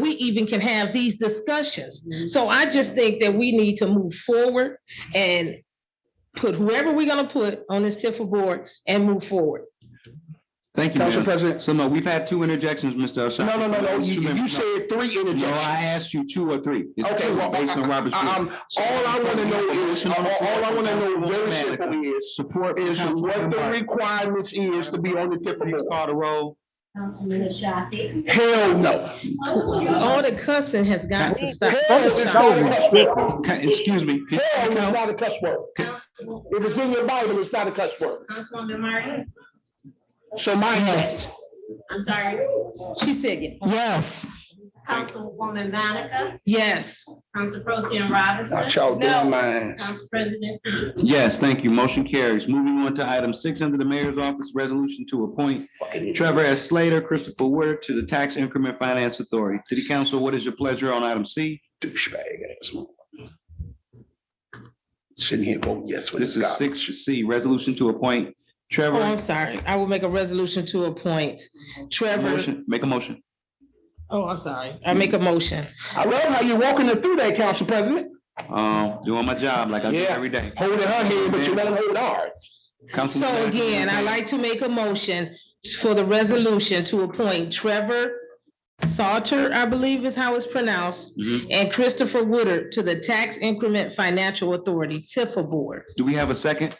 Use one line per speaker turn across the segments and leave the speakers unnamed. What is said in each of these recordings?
we even can have these discussions. So I just think that we need to move forward and put whoever we're gonna put on this Tifa board and move forward.
Thank you,
Council
ma'am.
President,
So no, we've had two interjections, Mr.
no,
Ashaki.
no, no, no,
It's two
you,
minutes.
you said three
No,
interjections.
I asked you two or three. It's
Okay,
two
well,
Based on Robert's
I-
rules.
I'm- all I wanna know is, all all I wanna know very simply is,
Support.
is what
Councilman
the
Martin.
requirements is to be on the Tifa
Please
board.
call the roll.
Councilman Ashafi.
Hell no.
All the cussing has got to stop.
Hell is not a cuss word.
Ca- Excuse me. Can-
Hell is
Count-
not a cuss word. If it's in your Bible, it's not a cuss word.
Councilwoman Martin,
So my,
I'm sorry,
She said, ye-
Yes,
Councilwoman Manica,
yes.
Council Pro Tim
not
Robinson,
y'all
No.
doing mine.
Council President Pugh.
Yes, thank you. Motion carries. Moving on to item six under the mayor's office, resolution to appoint Trevor S. Slater, Christopher Woodard to the Tax Increment Finance Authority. City Council, what is your pleasure on item C?
douchebag ass motherfucker. Sitting here voting yes with
This
his
is
God.
six C, resolution to appoint
Oh,
Trevor.
I'm sorry. I will make a resolution to appoint Trevor.
Motion- Make a motion.
Oh, I'm sorry. I make a motion.
I love how you walking it through that, Council President,
Um, doing my job like I do
Yeah.
every day.
holding her hand, but you let him hold ours.
Councilman
So
Manica,
again, I
anything?
like to make a motion for the resolution to appoint Trevor Salter, I believe is how it's pronounced,
Mhm.
and Christopher Woodard to the Tax Increment Financial Authority, Tifa Board.
Do we have a second?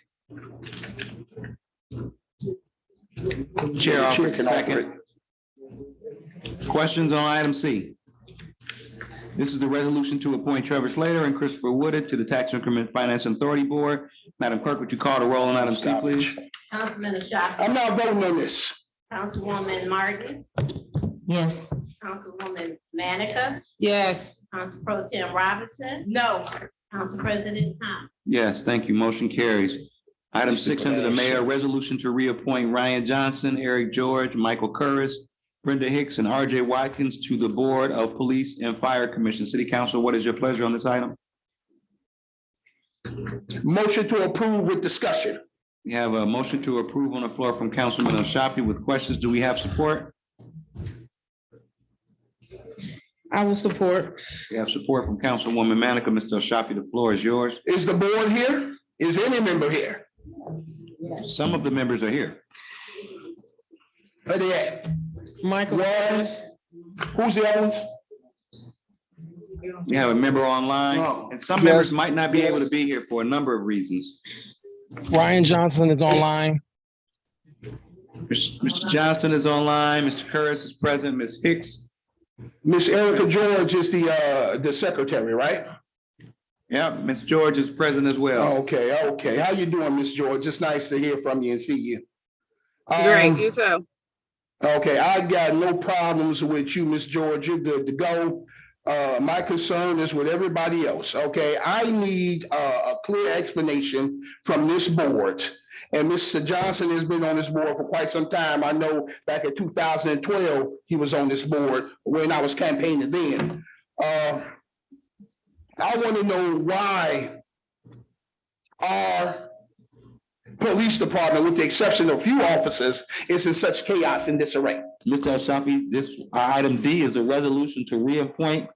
Chair
Chair
offers a
can offer
second. Questions on item C? This is the resolution to appoint Trevor Slater and Christopher Woodard to the Tax Increment Finance Authority Board. Madam Clerk, would you call the roll on item C,
Stop it.
please?
Councilman Ashafi,
I'm not voting on this.
Councilwoman Martin,
yes.
Councilwoman Manica,
Yes.
Council Pro Tim Robinson,
No.
Council President Pugh.
Yes, thank you. Motion carries. Item six under the mayor, resolution to reappoint Ryan Johnson, Eric George, Michael Curris, Brenda Hicks, and RJ Watkins to the Board of Police and Fire Commission. City Council, what is your pleasure on this item?
Motion to approve with discussion.
We have a motion to approve on the floor from Councilman Ashafi with questions. Do we have support?
I will support.
We have support from Councilwoman Manica. Mr. Ashafi, the floor is yours.
Is the board here? Is any member here?
Some of the members are here.
Where they at?
Michael.
Lawrence? Who's the other ones?
We have a member online, and some members might not be able to be here for a number of reasons.
Ryan Johnson is online.
Mr. Johnston is online, Mr. Curris is present, Ms. Hicks
Miss Erica George is the, uh, the secretary, right?
Yeah, Ms. George is present as well.
Oh, Okay, okay. How you doing, Miss George? It's nice to hear from you and see you.
Great,
Um,
you too.
Okay, I got no problems with you, Miss George. You're good to go. Uh, my concern is with everybody else, okay? I need a, a clear explanation from this board. And Mr. Johnson has been on this board for quite some time. I know back in two thousand and twelve, he was on this board when I was campaigning then. Uh, I want to know why our police department, with the exception of a few officers, is in such chaos and disarray.
Mr. Ashafi, this item D is a resolution to reappoint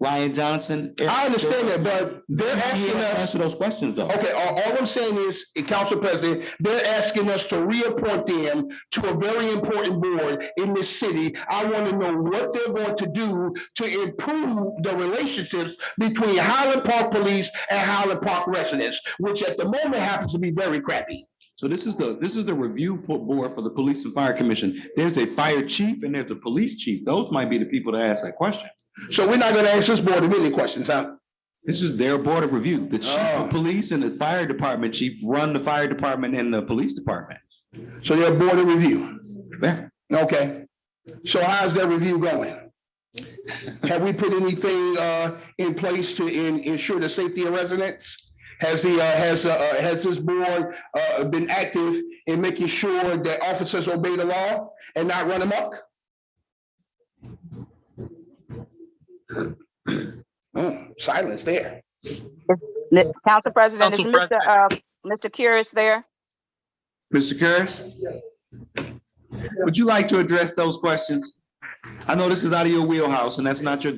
Ryan Johnson.
I understand that, but they're asking us,
Answer those questions, though.
okay, all, all I'm saying is, eh, Council President, they're asking us to reappoint them to a very important board in this city. I want to know what they're going to do to improve the relationships between Highland Park Police and Highland Park residents, which at the moment happens to be very crappy.
So this is the, this is the review po- board for the Police and Fire Commission. There's a fire chief and there's a police chief. Those might be the people to ask that question.
So we're not going to ask this board any questions, huh?
This is their board of review. The chief
Oh.
of police and the fire department chief run the fire department and the police department.
So they're board of review.
Yeah.
Okay, so how's that review going? Have we put anything uh in place to in ensure the safety of residents? Has the uh has uh has this board uh been active in making sure that officers obey the law and not run amok? Oh, silence there.
Mi- Council President, is
Council
Mr. uh, Mr. Curious there?
Mr. Curris? Would you like to address those questions? I know this is out of your wheelhouse and that's not your